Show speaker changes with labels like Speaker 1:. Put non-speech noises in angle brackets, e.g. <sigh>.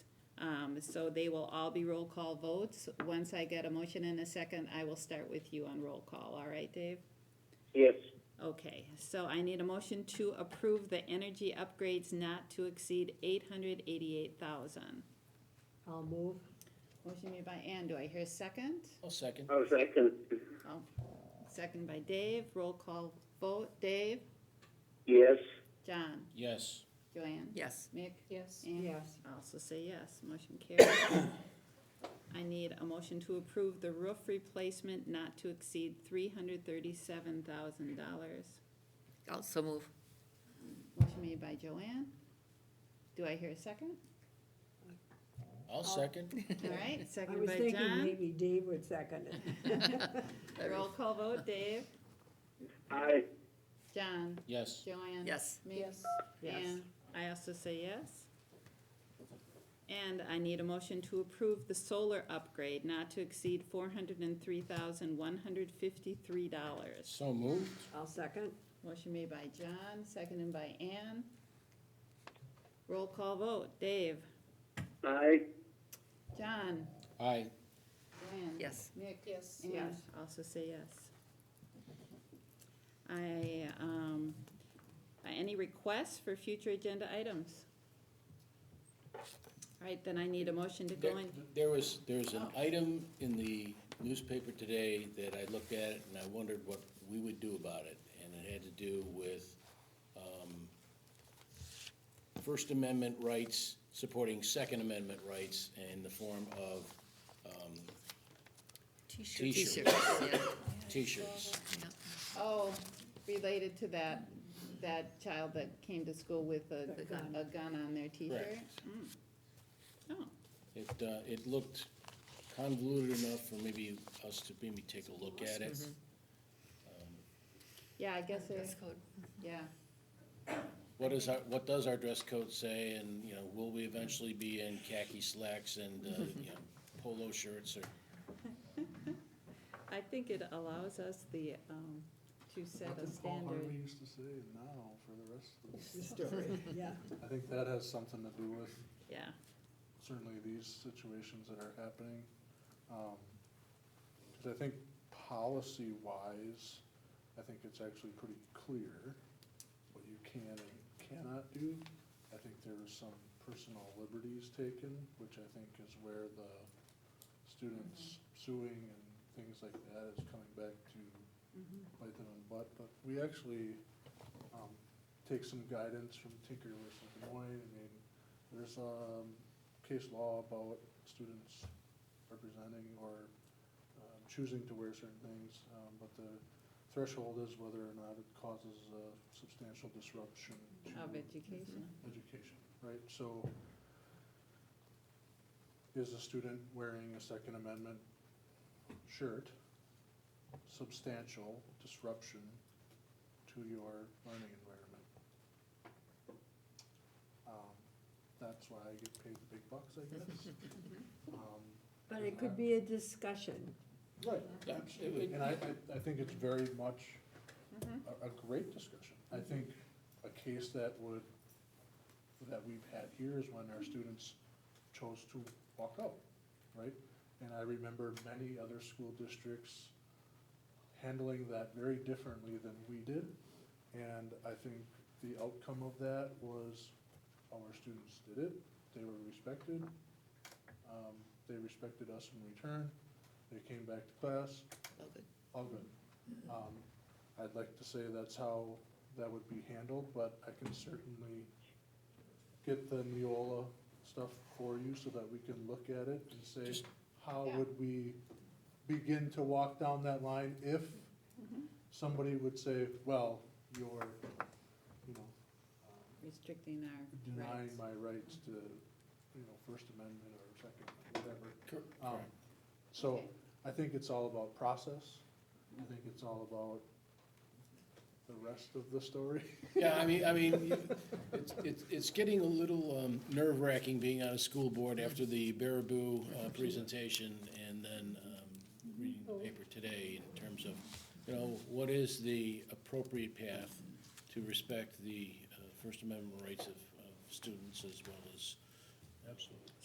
Speaker 1: Um, so they will all be roll call votes. Once I get a motion and a second, I will start with you on roll call. All right, Dave?
Speaker 2: Yes,
Speaker 1: Okay, so I need a motion to approve the energy upgrades not to exceed eight hundred eighty-eight thousand.
Speaker 3: I'll move.
Speaker 1: Motion made by Ann. Do I hear a second?
Speaker 4: I'll second.
Speaker 2: I'll second.
Speaker 1: Oh, second by Dave. Roll call vote. Dave?
Speaker 2: Yes,
Speaker 1: John?
Speaker 4: Yes,
Speaker 1: Joanne?
Speaker 5: Yes.
Speaker 1: Mick?
Speaker 3: Yes.
Speaker 1: And
Speaker 3: Yes.
Speaker 1: I Also say yes, motion carries. <coughs> I need a motion to approve the roof replacement not to exceed three hundred thirty-seven thousand dollars.
Speaker 5: Also move.
Speaker 1: Motion made by Joanne. Do I hear a second?
Speaker 4: I'll <laughs> second.
Speaker 1: All right,
Speaker 3: I
Speaker 1: seconded
Speaker 3: was
Speaker 1: by
Speaker 3: thinking
Speaker 1: John.
Speaker 3: maybe Dave would second it.
Speaker 1: Roll call vote, Dave,
Speaker 2: I,
Speaker 1: John,
Speaker 4: Yes,
Speaker 1: Joanne.
Speaker 5: Yes.
Speaker 1: Mick?
Speaker 3: Yes. Yes.
Speaker 1: And I also say yes. And I need a motion to approve the solar upgrade not to exceed four hundred and three thousand one hundred fifty-three dollars.
Speaker 4: so moved.
Speaker 3: I'll second.
Speaker 1: Motion made by John, seconded by Ann. Roll call vote, Dave,
Speaker 2: I,
Speaker 1: John,
Speaker 4: Aye,
Speaker 1: Ann.
Speaker 5: Yes.
Speaker 1: Nick.
Speaker 3: Yes.
Speaker 1: And
Speaker 3: Yes.
Speaker 1: also say yes. I, um, uh, any requests for future agenda items? All right, then I need a motion to go
Speaker 4: There-
Speaker 1: in.
Speaker 4: There was, there was an item in the newspaper today that I looked at and I wondered what we would do about it. And it had to do with um, First Amendment rights supporting Second Amendment rights in the form of um,
Speaker 5: T-shirts.
Speaker 4: T-shirts.
Speaker 5: yeah,
Speaker 4: T-shirts.
Speaker 5: yeah.
Speaker 1: Oh, related to that, that child that came to school with a,
Speaker 3: The gun.
Speaker 1: a gun on their t-shirt? Mm. Oh,
Speaker 4: It, uh, it looked convoluted enough for maybe us to maybe take a look at it.
Speaker 1: yeah, I guess,
Speaker 5: Dress
Speaker 1: it-
Speaker 5: code.
Speaker 1: yeah.
Speaker 4: What is our, what does our dress code say, and, you know, will we eventually be in khaki slacks and, uh, you know, polo shirts or?
Speaker 1: I think it allows us the, um, to set a
Speaker 6: What did Paul Harvey
Speaker 1: standard.
Speaker 6: used to say, now for the rest of us?
Speaker 3: Yeah.
Speaker 6: I think that has something to do with
Speaker 1: Yeah,
Speaker 6: certainly these situations that are happening. Um 'cause cause I think policy-wise, I think it's actually pretty clear what you can and cannot do. I think there are some personal liberties taken, which I think is where the students
Speaker 1: Mm-hmm.
Speaker 6: suing and things like that is coming back to bite them in the butt, but we actually, um, take some guidance from Tinker versus Des Moines. I mean, there's, um, case law about students representing or, um, choosing to wear certain things, um, but the threshold is whether or not it causes a substantial disruption to
Speaker 1: of education.
Speaker 6: Mm-hmm. education, right? So is a student wearing a Second Amendment shirt substantial disruption to your learning environment? Um, That's why I get paid the big bucks, I guess. Um,
Speaker 3: But it could be a discussion.
Speaker 6: Right,
Speaker 4: Yeah, it
Speaker 6: absolutely,
Speaker 4: would- Mm-hmm.
Speaker 6: and I, I, I think it's very much
Speaker 1: Mhm.
Speaker 6: a, a great discussion. I think a case that would, that we've had here is when our students chose to walk out, right? And I remember many other school districts handling that very differently than we did. And I think the outcome of that was our students did it, they were respected. Um, they respected us in return, they came back to class,
Speaker 5: All good.
Speaker 6: all good. Um, I'd like to say that's how that would be handled, but I can certainly get the Neola stuff for you so that we can look at it and say,
Speaker 4: Just-
Speaker 6: how
Speaker 1: Yeah.
Speaker 6: would we begin to walk down that line if somebody would say, well, you're, you know, um,
Speaker 1: Restricting our
Speaker 6: denying
Speaker 1: rights.
Speaker 6: my rights to, you know, First Amendment or Second, whatever. Um, So
Speaker 1: Okay.
Speaker 6: I think it's all about process. I think it's all about the rest of the story.
Speaker 4: Yeah, I mean, I mean, you- it's, it's, it's getting a little um, nerve-wracking being on a school board after the Baraboo uh, presentation and then um, reading the paper today in terms of, you know, what is the appropriate path to respect the uh, First Amendment rights of, of students as well as. Absolutely.